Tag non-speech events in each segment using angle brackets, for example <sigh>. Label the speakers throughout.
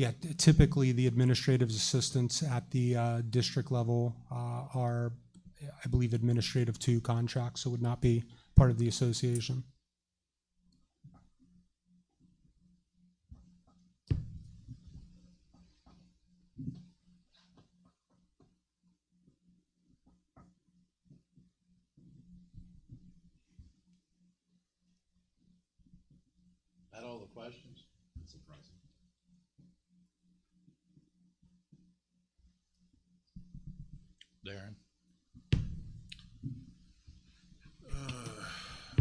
Speaker 1: Yeah, t- typically, the administrative assistants at the uh, district level uh, are, I believe, administrative two contracts, so would not be part of the association.
Speaker 2: That all the questions? That's surprising. Darren?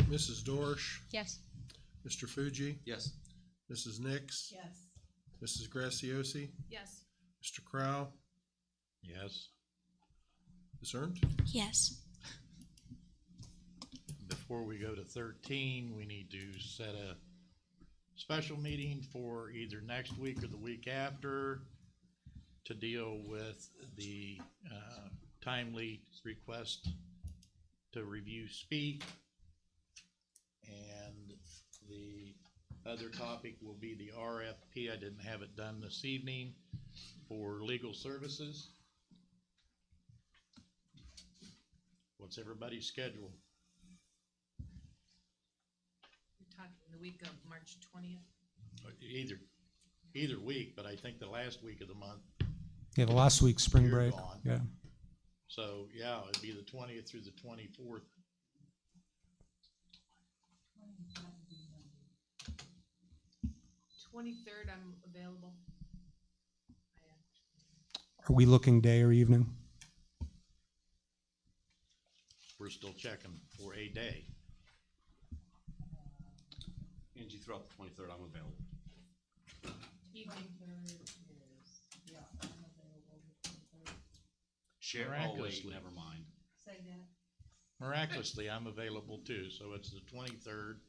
Speaker 3: Mrs. Dorsch,
Speaker 4: Yes.
Speaker 3: Mr. Fuji,
Speaker 2: Yes.
Speaker 3: Mrs. Nix,
Speaker 5: Yes.
Speaker 3: Mrs. Graciosi,
Speaker 5: Yes.
Speaker 3: Mr. Crowe,
Speaker 2: Yes.
Speaker 3: Ms. Ernst.
Speaker 4: Yes.
Speaker 2: Before we go to thirteen, we need to set a special meeting for either next week or the week after to deal with the, uh, timely request to review speak. And the other topic will be the RFP. I didn't have it done this evening for legal services. What's everybody's schedule?
Speaker 5: You're talking the week of March twentieth?
Speaker 2: Either, either week, but I think the last week of the month.
Speaker 1: Yeah, the last week's spring
Speaker 2: You're
Speaker 1: break,
Speaker 2: gone.
Speaker 1: yeah.
Speaker 2: So, yeah, it'd be the twentieth through the twenty-fourth.
Speaker 5: Twenty-third, I'm available. I have
Speaker 1: Are we looking day or evening?
Speaker 2: We're still checking for a day.
Speaker 6: Angie, throughout the twenty-third, I'm available.
Speaker 5: Evening.
Speaker 7: Yeah, I'm available the twenty-third.
Speaker 6: Share, oh wait,
Speaker 2: Miraculously.
Speaker 6: never mind.
Speaker 7: Say that.
Speaker 2: Miraculously, I'm available too, so it's the twenty-third.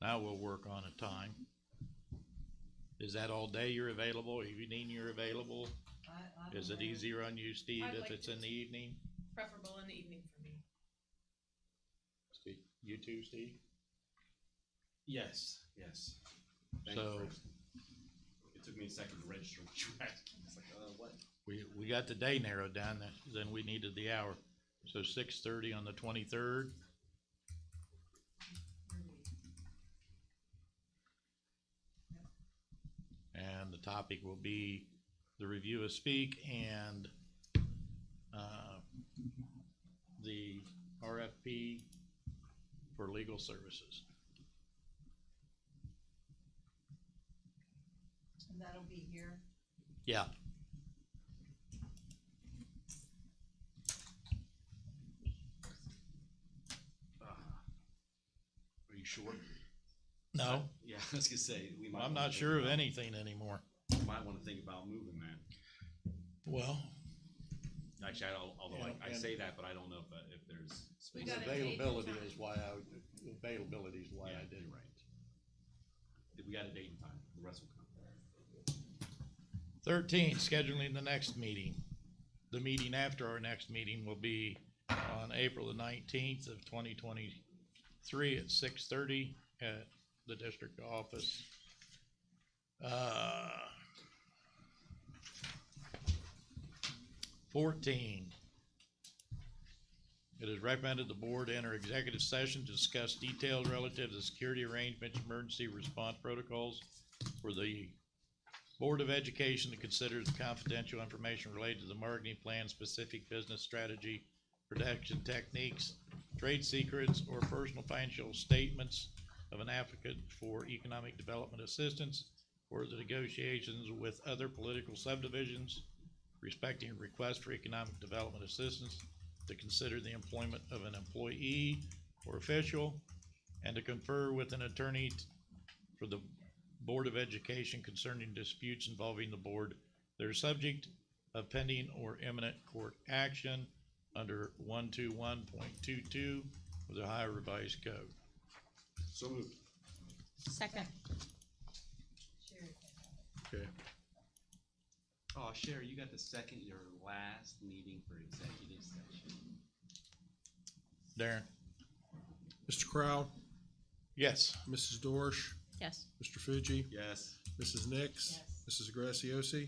Speaker 2: Now we'll work on a time. Is that all day you're available? Evening you're available?
Speaker 7: I- I'm
Speaker 2: Is it
Speaker 7: available.
Speaker 2: easier on you, Steve,
Speaker 5: I'd
Speaker 2: if
Speaker 5: like
Speaker 2: it's
Speaker 5: it
Speaker 2: in the
Speaker 5: to.
Speaker 2: evening?
Speaker 5: Preferable in the evening for me.
Speaker 2: Steve, You too, Steve?
Speaker 6: Yes, yes. Thank you
Speaker 2: So-
Speaker 6: for asking. It took me a second to register what you were asking. <laughs> It's like, uh, what?
Speaker 2: We, we got the day narrowed down, then- then we needed the hour. So six-thirty on the twenty-third? And the topic will be the review of speak and, uh, the RFP for legal services.
Speaker 7: And that'll be here.
Speaker 2: Yeah,
Speaker 6: Are you sure?
Speaker 2: no,
Speaker 6: Yeah, <laughs> I was gonna say, we might.
Speaker 2: I'm
Speaker 6: wanna
Speaker 2: not
Speaker 6: think
Speaker 2: sure of
Speaker 6: about-
Speaker 2: anything anymore.
Speaker 6: Might wanna think about moving that.
Speaker 2: Well.
Speaker 6: Actually, I don't, although
Speaker 2: Yeah,
Speaker 6: I, I
Speaker 2: and-
Speaker 6: say that, but I don't know if, uh, if there's.
Speaker 5: We
Speaker 6: space.
Speaker 5: got it.
Speaker 2: Availability is why I, availability is why
Speaker 6: Yeah,
Speaker 2: I
Speaker 6: you're
Speaker 2: did.
Speaker 6: right. We got a date and time, the rest will come.
Speaker 2: Thirteen, scheduling the next meeting. The meeting after our next meeting will be on April the nineteenth of twenty twenty-three at six thirty at the district office. Uh, Fourteen. It is recommended the board enter executive session to discuss details relative to security arrangements, emergency response protocols for the Board of Education that considers confidential information related to the marketing plan, specific business strategy, production techniques, trade secrets, or personal financial statements of an applicant for economic development assistance or the negotiations with other political subdivisions respecting requests for economic development assistance to consider the employment of an employee or official and to confer with an attorney t- for the Board of Education concerning disputes involving the board, their subject of pending or imminent court action under one two one point two two of the Ohio Revised Code.
Speaker 6: So moved.
Speaker 4: Second.
Speaker 7: Sherry can have it.
Speaker 2: Okay.
Speaker 6: Oh, Sherry, you got the second, your last meeting for executive session.
Speaker 2: Darren?
Speaker 3: Mr. Crowe,
Speaker 2: Yes.
Speaker 3: Mrs. Dorsch,
Speaker 4: Yes.
Speaker 3: Mr. Fuji,
Speaker 6: Yes.
Speaker 3: Mrs. Nix,
Speaker 7: Yes.
Speaker 3: Mrs. Graciosi?